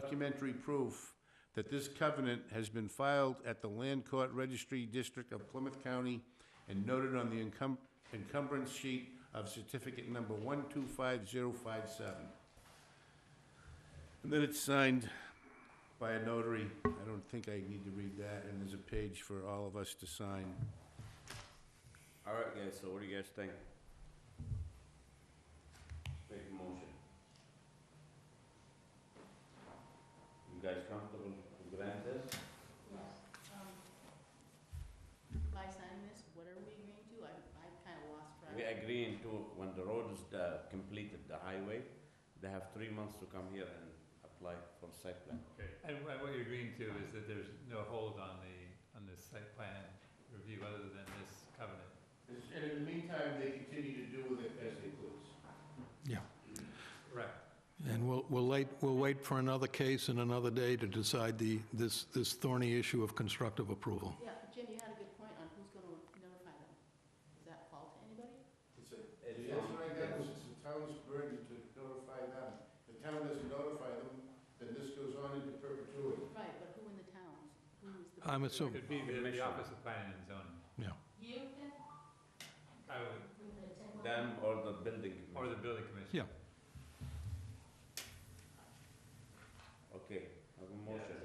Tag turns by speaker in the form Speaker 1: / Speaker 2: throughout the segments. Speaker 1: documentary proof that this covenant has been filed at the Land Court Registry District of Plymouth County and noted on the encum- encumbrance sheet of certificate number 125057. And then it's signed by a notary. I don't think I need to read that, and there's a page for all of us to sign.
Speaker 2: All right, guys, so what do you guys think? Make a motion. You guys comfortable with this?
Speaker 3: um, By signing this, what are we agreeing to? I, I kinda lost track.
Speaker 2: We agreeing to, when the road is uh, completed, the highway, they have three months to come here and apply for site plan.
Speaker 4: Okay, and wha- what you're agreeing to is that there's no hold on the, on this site plan review other than this covenant.
Speaker 1: And in the meantime, they continue to do with it as they please.
Speaker 5: Yeah,
Speaker 4: Right.
Speaker 5: and we'll, we'll wait, we'll wait for another case and another day to decide the, this, this thorny issue of constructive approval.
Speaker 3: Yeah, Jim, you had a good point on who's gonna notify them. Does that fall to anybody?
Speaker 1: It's a, that's what I got, is it's the town's burden to notify them. The town doesn't notify them, then this goes on into perpetuity.
Speaker 3: Right, but who in the towns? Who is the?
Speaker 5: I'm assuming-
Speaker 4: Could be the, the
Speaker 2: Commission.
Speaker 4: Office of Planning and Zoning.
Speaker 5: Yeah.
Speaker 3: You?
Speaker 4: I would,
Speaker 2: Them or the building commission.
Speaker 4: or the Building Commission.
Speaker 5: Yeah.
Speaker 2: Okay, have a motion.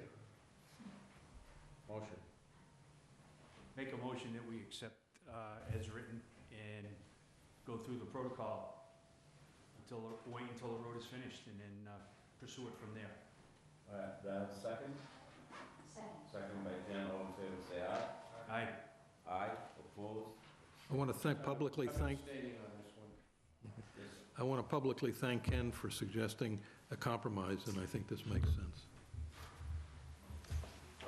Speaker 2: Motion.
Speaker 6: Make a motion that we accept uh, as written and go through the protocol until, wait until the road is finished and then uh, pursue it from there.
Speaker 2: All right, do I have a second?
Speaker 3: Second.
Speaker 2: Second by Jen, all in favor, say aye.
Speaker 6: Aye.
Speaker 2: Aye, opposed?
Speaker 5: I want to thank, publicly thank,
Speaker 1: I'm abstaining on this one.
Speaker 2: Yes.
Speaker 5: I want to publicly thank Ken for suggesting a compromise, and I think this makes sense.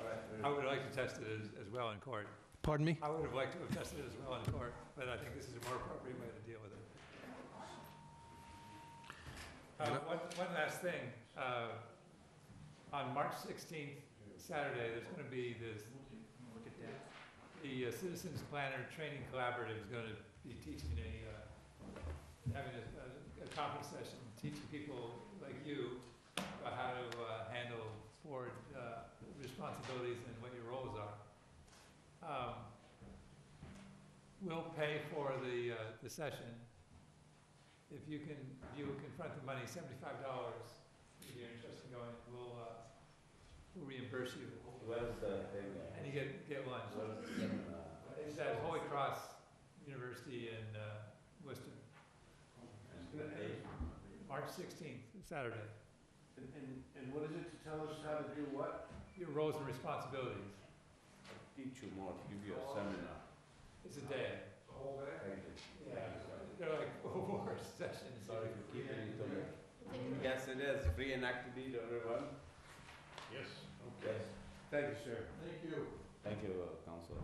Speaker 2: All right, very
Speaker 4: I would like to test it as, as well in court.
Speaker 5: Pardon me?
Speaker 4: I would have liked to have tested it as well in court, but I think this is a more appropriate way to deal with it. Uh, one, one last thing, uh, on March sixteenth, Saturday, there's gonna be this,
Speaker 6: Look at that.
Speaker 4: the uh, Citizens Planner Training Collaborative is gonna be teaching a, uh, having a, a- a conference session, teaching people like you about how to, uh, handle board, uh, responsibilities and what your roles are. Um, We'll pay for the, uh, the session. If you can, if you confront the money, seventy-five dollars, if you're interested in going, we'll, uh, we'll reimburse you,
Speaker 2: Where's the thing? uh,
Speaker 4: and you get, get lunch.
Speaker 2: where's the, uh,
Speaker 4: It's at Holy Cross University in uh, Worcester,
Speaker 2: and the date?
Speaker 4: March 16th, Saturday.
Speaker 1: And, and- and what is it to tell us how to do what?
Speaker 4: Your roles and responsibilities.
Speaker 2: I'll Teach you more, give you a seminar.
Speaker 4: It's a day.
Speaker 2: Thank you.
Speaker 4: They're like four sessions.
Speaker 2: Sorry for keeping you to it.
Speaker 3: We'll take a-
Speaker 2: Yes, it is, free and active, everyone.
Speaker 1: Yes.
Speaker 2: Yes.
Speaker 1: Thank you, sir.
Speaker 5: Thank you.
Speaker 2: Thank you, uh, Counselor.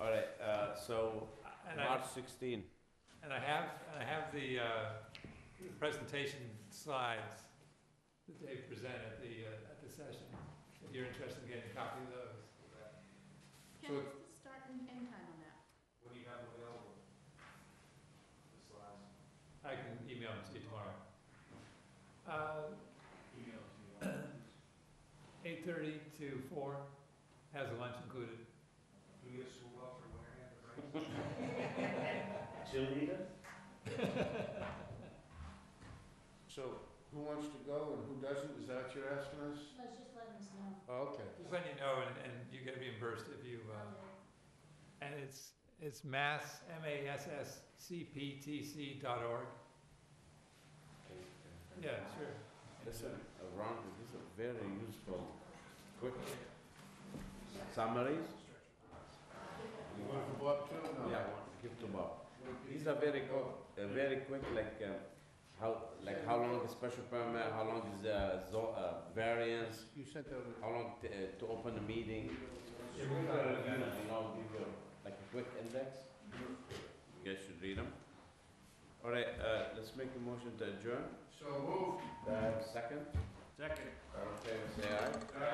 Speaker 2: All right, uh, so,
Speaker 4: And I,
Speaker 2: March sixteen.
Speaker 4: and I have, and I have the uh, the presentation slides that they present at the, uh, at the session. If you're interested in getting a copy of those.
Speaker 3: Ken, what's the start and end time on that?
Speaker 6: What do you have available? The slides.
Speaker 4: I can email them to you tomorrow. Uh,
Speaker 6: Email to you.
Speaker 4: 8:30 to 4 has a lunch included.
Speaker 6: Do we get school bus or where?
Speaker 2: Cheerleader?
Speaker 1: So who wants to go and who doesn't? Is that what you're asking us?
Speaker 3: Let's just let us know.
Speaker 1: Okay.
Speaker 4: Just letting you know, and, and you get reimbursed if you, uh, and it's, it's mass, M-A-S-S-C-P-T-C dot org. Yeah, sure.
Speaker 2: This is a round, this is a very useful, quick summaries.
Speaker 1: You want to go up too? No.
Speaker 2: Yeah, give to Bob. These are very good. Uh, very quick, like, uh, how, like how long is special permit, how long is, uh, zo- uh, variance,
Speaker 1: You sent out a
Speaker 2: how long t- uh, to open the meeting?
Speaker 4: Yeah,
Speaker 2: You
Speaker 4: we've got it.
Speaker 2: know, give you, like a quick index. You guys should read them. All right, uh, let's make a motion to adjourn.
Speaker 1: So move.
Speaker 2: Uh, second,
Speaker 6: Second.
Speaker 2: all in favor, say aye.
Speaker 1: Aye.